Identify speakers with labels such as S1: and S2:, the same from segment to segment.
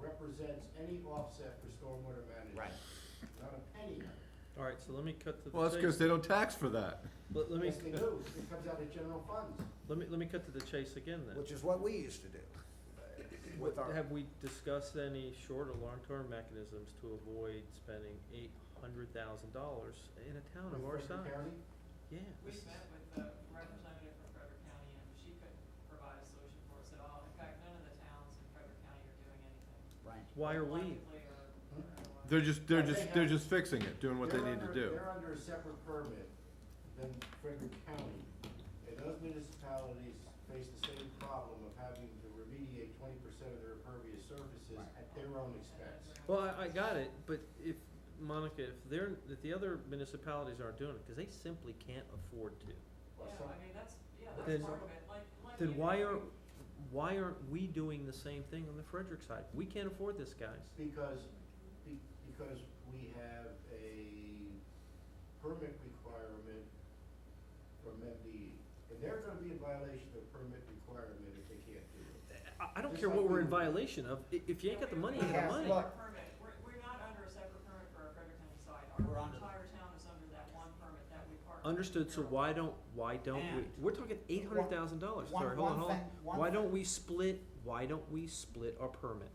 S1: represents any offset for stormwater management.
S2: Right.
S1: Not a penny.
S3: All right, so let me cut to the
S4: Well, that's because
S3: chase.
S4: they don't tax for that.
S3: Let, let me,
S1: Yes, they do. It comes out of general funds.
S3: let me, let me cut to the chase again then.
S2: which is what we used to do with our,
S3: Have we discussed any short or long-term mechanisms to avoid spending eight hundred thousand dollars in a town of
S1: With
S3: our
S1: Frederick
S3: size?
S1: County,
S3: Yeah.
S5: We met with the representative from Frederick County, and she couldn't provide a solution for us at all. In fact, none of the towns in Frederick County are doing anything.
S2: right,
S3: Why are we?
S5: collectively or- or otherwise.
S4: They're just, they're just, they're just fixing it, doing what they
S1: they're
S4: need to
S1: under-
S4: do.
S1: They're under a separate permit than Frederick County. And those municipalities face the same problem of having to remediate twenty percent of their impervious surfaces
S2: Right.
S1: at their own
S5: And
S1: expense.
S5: that's where-
S3: Well, I, I got it, but if, Monica, if they're, if the other municipalities aren't doing it, cause they simply can't afford to,
S1: Or
S5: Yeah,
S1: some-
S5: I mean, that's, yeah,
S3: Then-
S5: that's part of it, like, like.
S3: then
S5: you
S3: why
S5: know,
S3: are, why aren't we doing the same thing on the Frederick side? We can't afford this, guys.
S1: Because, be- because we have a permit requirement from MDE. And they're gonna be in violation of permit requirement if they can't do it.
S3: I, I don't
S1: Just
S3: care
S1: like
S3: what
S1: we
S3: we're in
S1: were-
S3: violation of, i- if you ain't got the money, you ain't got
S2: Yeah,
S3: the money.
S2: look.
S5: Permit, we're, we're not under a separate permit for our Frederick County side,
S2: We're
S5: our
S2: under-
S5: entire town is under that one permit that we partnered.
S3: Understood, so
S5: Carroll.
S3: why don't, why don't we,
S2: And-
S3: we're talking eight hundred thousand dollars,
S2: One-
S3: sorry, hold on,
S2: one
S3: hold on.
S2: thing- one
S3: Why
S2: thing-
S3: don't we split, why don't we split our permit?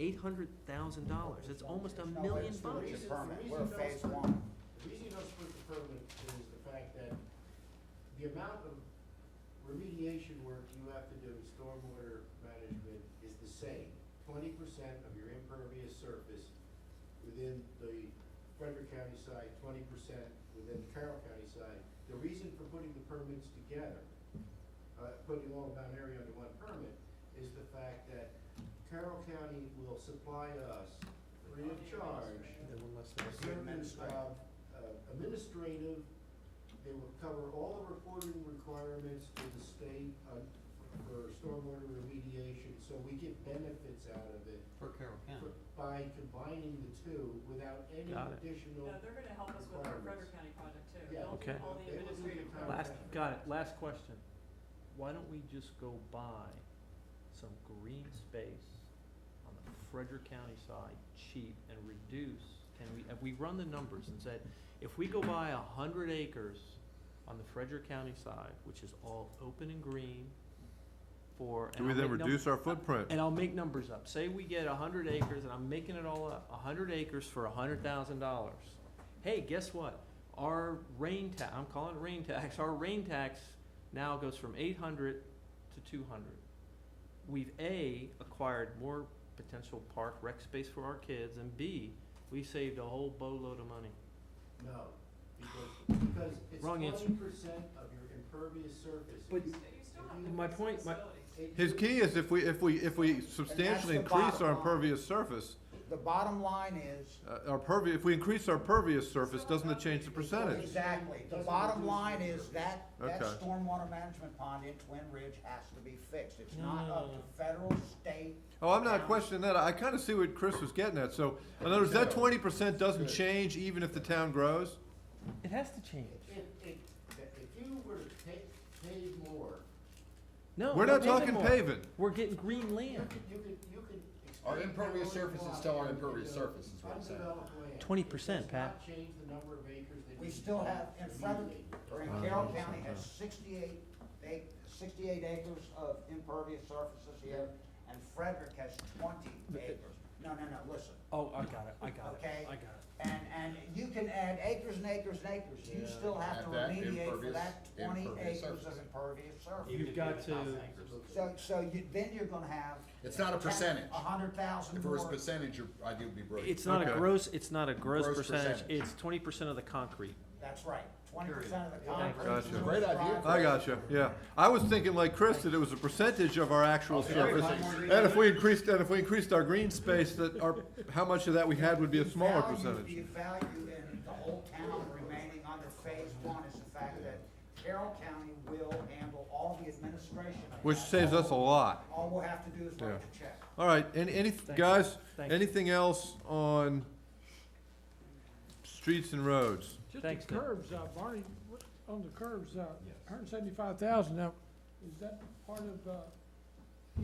S3: Eight hundred thousand dollars, it's almost a
S2: There's no way
S3: million
S2: to split
S3: bucks.
S2: your
S1: Reason-
S2: permit.
S1: reason
S2: We're
S1: those
S2: phase
S1: per-
S2: one.
S1: The reason you don't split the permit is the fact that the amount of remediation work you have to do in stormwater management is the same. Twenty percent of your impervious surface within the Frederick County side, twenty percent within the Carroll County side. The reason for putting the permits together, uh, putting all of Mount Airy under one permit, is the fact that Carroll County will supply us free of charge
S3: And one less thing.
S1: certain, uh, uh, administrative, they will cover all the reporting requirements to the state uh, for stormwater remediation, so we get benefits out of it
S6: For Carroll County.
S1: by combining the two without any
S3: Got it.
S1: additional.
S5: No, they're gonna help us with our Frederick County project too,
S1: Yeah.
S5: they'll do
S3: Okay.
S5: all the
S1: They will do the
S5: administrative.
S1: entire
S3: Last,
S1: thing.
S3: got it, last question. Why don't we just go buy some green space on the Frederick County side, cheap, and reduce? Can we, have we run the numbers and said, if we go buy a hundred acres on the Frederick County side, which is all open and green for, and
S4: Do we
S3: I'll
S4: then
S3: make num-
S4: reduce our footprint?
S3: and I'll make numbers up. Say we get a hundred acres, and I'm making it all up, a hundred acres for a hundred thousand dollars. Hey, guess what? Our rain tax, I'm calling it rain tax, our rain tax now goes from eight hundred to two hundred. We've A, acquired more potential park rec space for our kids, and B, we saved a whole boatload of money.
S1: No, because, because it's
S3: Wrong
S1: twenty
S3: answer.
S1: percent of your impervious surface.
S3: But-
S1: It's-
S5: You still have to
S3: My
S5: fix the
S3: point- my-
S5: facilities.
S1: it-
S4: His key is if we, if we, if we substantially increase
S2: bottom
S4: our
S2: line.
S4: impervious surface,
S2: The bottom line is,
S4: uh, our pervi, if we increase our pervious surface, doesn't it change the percentage?
S2: exactly, the bottom line is that, that
S4: Okay.
S2: stormwater management pond in Twin Ridge has to be fixed. It's
S3: No,
S2: not
S3: no,
S2: up
S3: no,
S2: to
S3: no.
S2: federal, state,
S4: Oh, I'm not questioning that. I kinda see what Chris was getting at. So, in other words, that twenty percent doesn't change even if the town grows?
S3: It has to change.
S1: If, if, if you were to take, pay more,
S3: No,
S4: We're
S3: we're
S4: not talking
S3: more.
S4: paving.
S3: We're getting green
S1: you
S3: land.
S1: could, you could, you could.
S7: Our
S1: expand
S7: impervious
S1: that all you
S7: surface is
S1: want
S7: still our
S1: into
S7: impervious surface, is what I'm saying.
S1: undeveloped land.
S3: 20%,
S1: It does
S3: Pat.
S1: not change the number of acres that
S2: we
S1: you
S2: still have in Frederick,
S1: remediate.
S2: or in Carroll County has sixty-eight, ac sixty-eight acres of impervious surfaces here, and Frederick has twenty acres. No, no, no, listen,
S3: Oh, I got it, I got it,
S2: Okay.
S3: I got it.
S2: and, and you can add acres and acres and acres, you
S3: Yeah.
S2: still have to
S7: Add that
S2: remediate for
S7: impervious-
S2: that twenty
S7: impervious
S2: acres of
S7: surface.
S2: impervious surface.
S3: You've got to.
S2: So, so you, then you're gonna have.
S7: It's not a percentage.
S2: A hundred thousand
S7: If it was
S2: more,
S7: percentage, your idea would be brilliant.
S3: It's not a
S4: Okay.
S3: gross, it's not a gross
S7: Gross
S3: percentage,
S7: percentage.
S3: it's twenty percent of the concrete.
S2: that's right, twenty percent of the
S3: Thank
S2: concrete.
S4: Gotcha.
S2: is
S7: Great idea.
S2: private.
S4: I gotcha, yeah. I was thinking like Chris, that it was a percentage of our actual surface.
S7: everybody.
S4: And if we increased, and if we increased our green space, that our, how much of that we had would be a
S2: The
S4: smaller
S2: value-
S4: percentage.
S2: The value in the whole town remaining under phase one is the fact that Carroll County will handle all the administration. of
S4: Which
S2: that.
S4: saves us a lot.
S2: All we'll have to do is write the check.
S4: All right, any, any,
S3: Thank you.
S4: guys,
S3: Thank you.
S4: anything else on streets and roads?
S8: Just
S3: Thanks,
S8: the
S3: Nick.
S8: curbs, uh, Barney, what- on the curbs, uh, hundred and seventy-five thousand, now, is that part of, uh,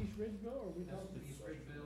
S8: East Ridgeville, or are we
S6: That's
S8: talking?
S6: the East Ridgeville